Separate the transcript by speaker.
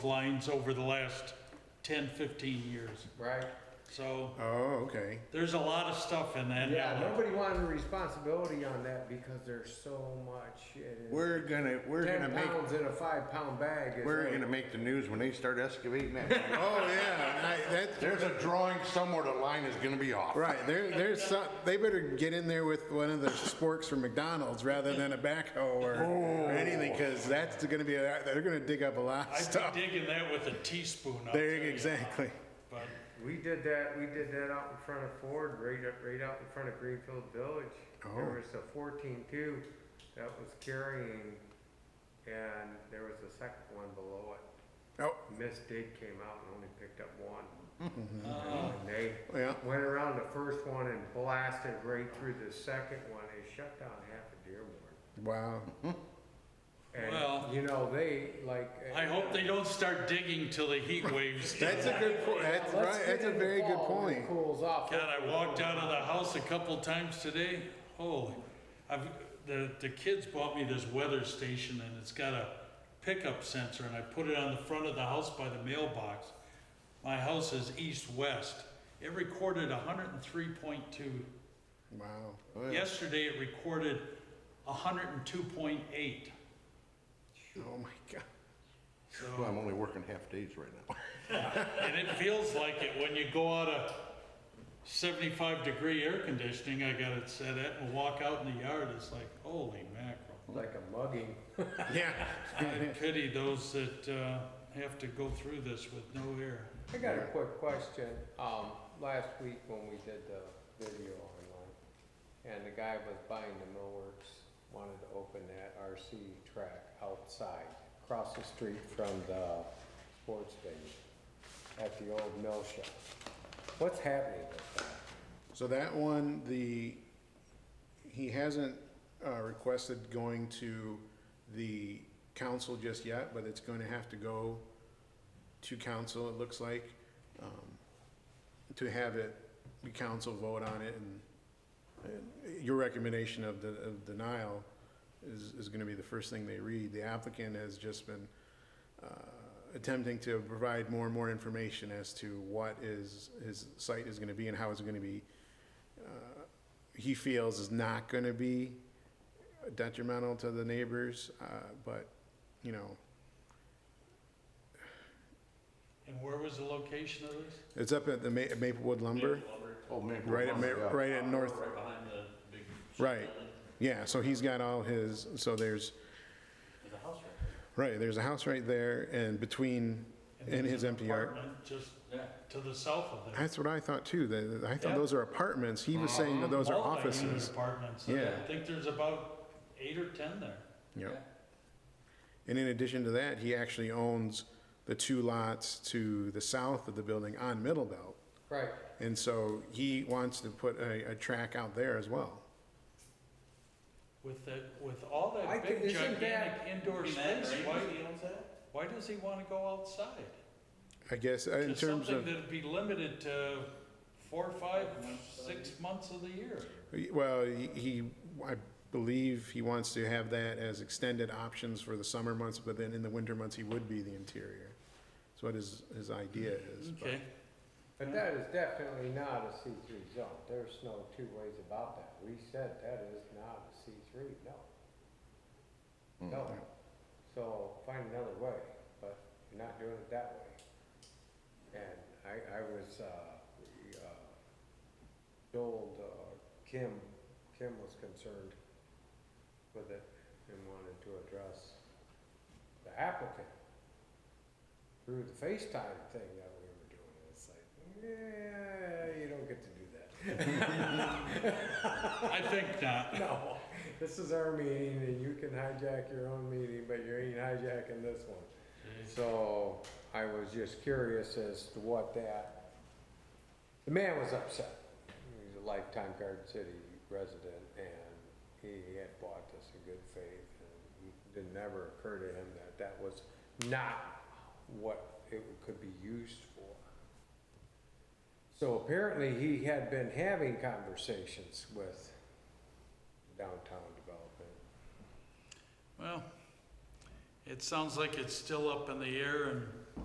Speaker 1: lines over the last 10, 15 years.
Speaker 2: Right?
Speaker 1: So
Speaker 3: Oh, okay.
Speaker 1: there's a lot of stuff in that.
Speaker 2: Yeah,
Speaker 1: alley.
Speaker 2: nobody wanted responsibility on that because there's so much. it is-
Speaker 3: We're gonna, we're gonna
Speaker 2: Ten
Speaker 3: make,
Speaker 2: pounds in a five pound bag is.
Speaker 3: we're
Speaker 2: like-
Speaker 3: gonna make the news when they start excavating that. Oh, yeah, I- that,
Speaker 4: There's a drawing somewhere the line is gonna be off.
Speaker 3: right, there, there's some, they better get in there with one of the sporks from McDonald's rather than a backhoe or
Speaker 2: Oh.
Speaker 3: or anything, cause that's gonna be, a- they're gonna dig up a lot of
Speaker 1: I'd
Speaker 3: stuff.
Speaker 1: be digging that with a teaspoon. I'll
Speaker 3: There,
Speaker 1: tell you.
Speaker 3: exactly.
Speaker 1: But
Speaker 2: We did that, we did that out in front of Ford, right, up- right out in front of Greenfield Village. There
Speaker 3: Oh.
Speaker 2: was a fourteen two that was carrying, and there was a second one below it.
Speaker 3: Oh,
Speaker 2: Miss Dig came out and only picked up one. And they
Speaker 3: Mm-hmm. yeah,
Speaker 2: went around the first one and blasted right through the second one, they shut down half of Dearborn.
Speaker 3: wow.
Speaker 1: Well-
Speaker 2: And, you know, they, like. uh,
Speaker 1: I hope they don't start digging till the heat waves. do.
Speaker 3: That's a good point, that's
Speaker 2: Let's
Speaker 3: right,
Speaker 2: get
Speaker 3: that's a
Speaker 2: in the
Speaker 3: very good
Speaker 2: fall when it
Speaker 3: point.
Speaker 2: Cools off.
Speaker 1: God, I walked out of the house a couple times today. Holy, I've, the, the kids bought me this weather station and it's got a pickup sensor and I put it on the front of the house by the mailbox. My house is east-west. It recorded hundred and three point two.
Speaker 3: Wow.
Speaker 1: Yesterday, it recorded hundred and two point eight.
Speaker 3: Oh my god.
Speaker 4: Well, I'm only working half days right now.
Speaker 1: And it feels like it when you go out of seventy-five degree air conditioning, I got it set at, and walk out in the yard, it's like, holy mackerel.
Speaker 2: Like a mugging.
Speaker 3: Yeah.
Speaker 1: I pity those that uh, have to go through this with no air.
Speaker 2: I got a quick question. Um, last week when we did the video online, and the guy was buying the millworks, wanted to open that RC track outside, across the street from the sports venue, at the old mill shop. What's happening with that?
Speaker 3: So that one, the, he hasn't uh, requested going to the council just yet, but it's going to have to go to council, it looks like, um, to have it, the council vote on it, and and your recommendation of the, of denial is, is gonna be the first thing they read. The applicant has just been uh, attempting to provide more and more information as to what is, his site is gonna be and how it's gonna be, uh, he feels is not gonna be detrimental to the neighbors, uh, but, you know,
Speaker 1: And where was the location of this?
Speaker 3: it's up at the Ma- Maplewood Lumber,
Speaker 4: Oh, man.
Speaker 3: right at, Ma- right at North,
Speaker 5: Right behind the big. shop
Speaker 3: Right.
Speaker 5: building.
Speaker 3: yeah, so he's got all his, so there's,
Speaker 5: There's a house right
Speaker 3: right, there's a house right there, and between, in his empty yard.
Speaker 1: Apartment Just
Speaker 5: there.
Speaker 1: to the south of there.
Speaker 3: That's what I thought too. That I thought
Speaker 1: Yeah.
Speaker 3: those are apartments. He was saying that those are
Speaker 1: Multi-unit
Speaker 3: offices.
Speaker 1: Apartments.
Speaker 3: Yeah.
Speaker 1: I think there's about eight or 10 there.
Speaker 3: Yep. And in addition to that, he actually owns the two lots to the south of the building on Middle Belt.
Speaker 2: Right,
Speaker 3: And so he wants to put a, a track out there as well.
Speaker 1: With that, with all
Speaker 2: I
Speaker 1: that
Speaker 2: think-
Speaker 1: big
Speaker 2: isn't that-
Speaker 1: gigantic indoor
Speaker 5: Be mad,
Speaker 1: space,
Speaker 5: right?
Speaker 1: why,
Speaker 5: He owns that?
Speaker 1: why does he want to go outside?
Speaker 3: I guess uh, in
Speaker 1: To
Speaker 3: terms
Speaker 1: something
Speaker 3: of,
Speaker 1: that'd be limited to four, five, six months of the year.
Speaker 3: well, he- he, I believe he wants to have that as extended options for the summer months, but then in the winter months, he would be the interior. That's what his, his idea is. but-
Speaker 1: Okay.
Speaker 2: but that is definitely not a C three zone. There's no two ways about that. We said that is not a C three, no. No. So find another way, but you're not doing it that way. And I, I was, uh, we, uh, told, uh, Kim, Kim was concerned with it and wanted to address the applicant through the FaceTime thing that we were doing. It's like, yeah, you don't get to do that.
Speaker 1: I think not.
Speaker 2: No, this is our meeting and you can hijack your own meeting, but you ain't hijacking this one. So I was just curious as to what that, the man was upset. He's a lifetime Garden City resident and he had bought this in good faith. and It never occurred to him that that was not what it could be used for. So apparently he had been having conversations with downtown development.
Speaker 1: Well, it sounds like it's still up in the air and